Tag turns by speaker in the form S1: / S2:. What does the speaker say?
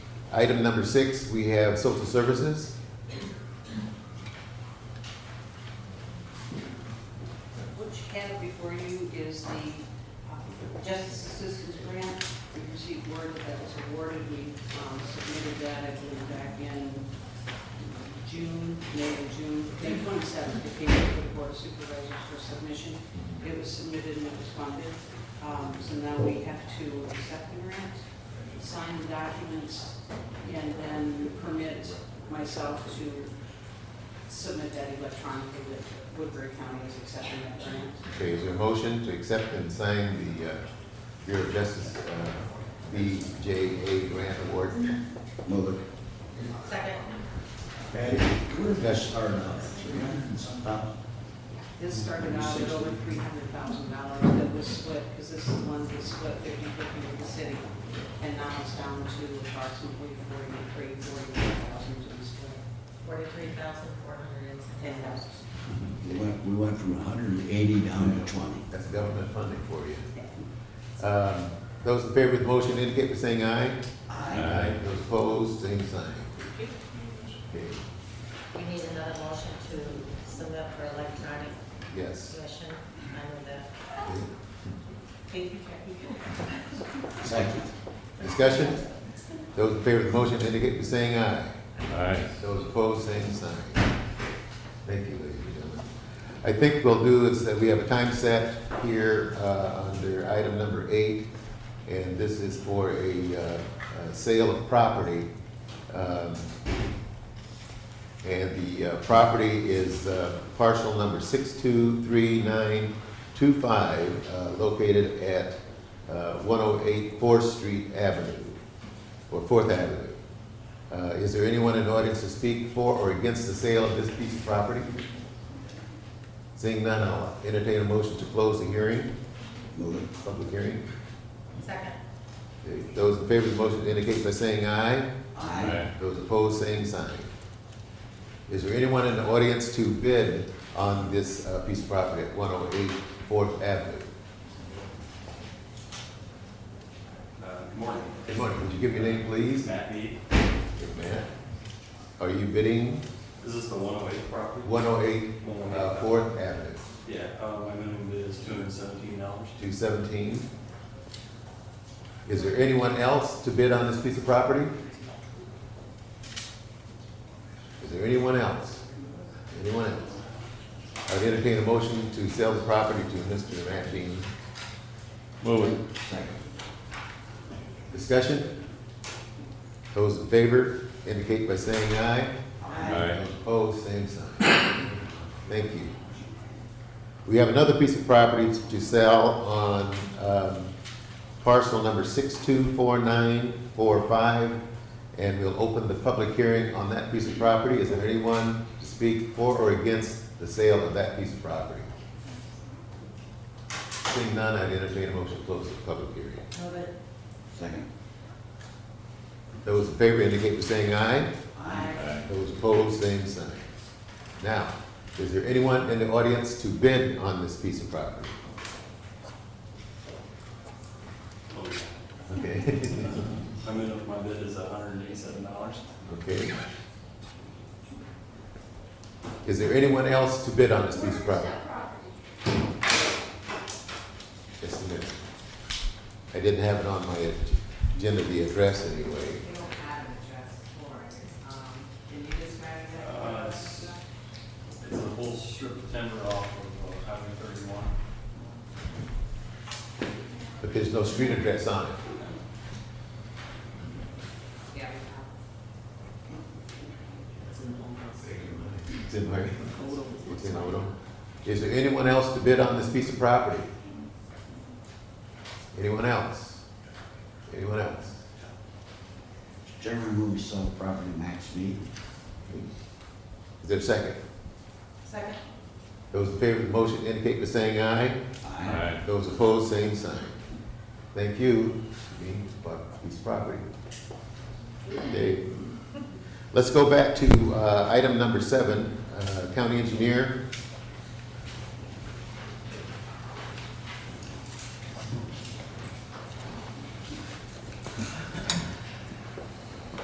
S1: Item number six, we have social services.
S2: What you have before you is the um, Justice Assistance Grant. We received word that that was awarded. We um, submitted that, I believe, back in um, June, May or June, May 27th. It came to the Board of Supervisors for submission. It was submitted and it was funded. Um, So now we have to accept the grant, sign the documents, and then permit myself to submit that electronically that Woodbury County is accepting that grant.
S1: Okay, is there a motion to accept and sign the uh, Bureau of Justice uh, BJA grant award?
S3: Move it.
S2: Second.
S3: Patty, where did that start out? Three hundred and some thousand?
S2: This started out at over three hundred thousand dollars that was split, because this is one that split fifty fifty with the city. And now it's down to approximately forty-three, forty-four thousand to be split.
S4: Forty-three thousand, four hundred and ten
S2: And
S4: dollars.
S2: that's,
S3: We went, we went from hundred and eighty down to twenty.
S1: That's government funding for you. Um, Those in favor of the motion indicate by saying aye. Those opposed, same sign. Okay,
S4: We need another motion to submit for electronic
S1: yes.
S4: submission. I move that.
S1: Okay.
S2: thank you, Kathy.
S3: Second.
S1: Discussion? Those in favor of the motion indicate by saying aye.
S5: Aye.
S1: Those opposed, same sign. Thank you, ladies and gentlemen. I think we'll do is that we have a time set here uh, under item number eight, and this is for a uh, uh, sale of property. Um, And the uh, property is uh, parcel number 623925, uh, located at uh, 108 Fourth Street Avenue, or Fourth Avenue. Uh, Is there anyone in the audience to speak for or against the sale of this piece of property? Seeing none, I'll entertain a motion to close the hearing,
S3: Move it.
S1: public hearing.
S4: Second.
S1: Okay, Those in favor of the motion indicate by saying aye.
S3: Aye.
S1: Those opposed, same sign. Is there anyone in the audience to bid on this uh, piece of property at 108 Fourth Avenue?
S6: Uh, Good morning.
S1: Good morning, would you give your name, please?
S6: Matt Mead.
S1: Good man. Are you bidding
S6: Is this the 108 property?
S1: 108 uh, Fourth Avenue,
S6: Yeah, uh, my minimum is $217.
S1: 217? Is there anyone else to bid on this piece of property? Is there anyone else? Anyone else? I would entertain a motion to sell the property to Mr. Matt Dean.
S5: Move it.
S3: Second.
S1: Discussion? Those in favor indicate by saying aye.
S5: Aye.
S1: Those Opposed, same sign. Thank you. We have another piece of property to sell on um, parcel number 624945, and we'll open the public hearing on that piece of property. Is there anyone to speak for or against the sale of that piece of property? Seeing none, I'd entertain a motion to close the public hearing.
S4: Move it.
S3: Second.
S1: Those in favor indicate by saying aye.
S4: Aye.
S1: Those opposed, same sign. Now, is there anyone in the audience to bid on this piece of property?
S6: Oh, yeah.
S1: Okay,
S6: My minimum, my bid is $187.
S1: okay. Is there anyone else to bid on this piece of property? Just a minute. I didn't have it on my agenda, the address anyway.
S2: They don't have an address for it, um, can you describe
S6: Uh, It's it's a whole strip of timber off of uh, Highway 31.
S1: But there's no street address on it.
S2: Yeah.
S1: It's in my, it's in Odom. Is there anyone else to bid on this piece of property? Anyone else? Anyone else?
S3: Chairman, move to sell property max Mead.
S1: Is there a second?
S4: Second.
S1: Those in favor of the motion indicate by saying aye.
S5: Aye.
S1: Those opposed, same sign. Thank you, being bought piece of property. Okay. Let's go back to uh, item number seven, uh, county engineer.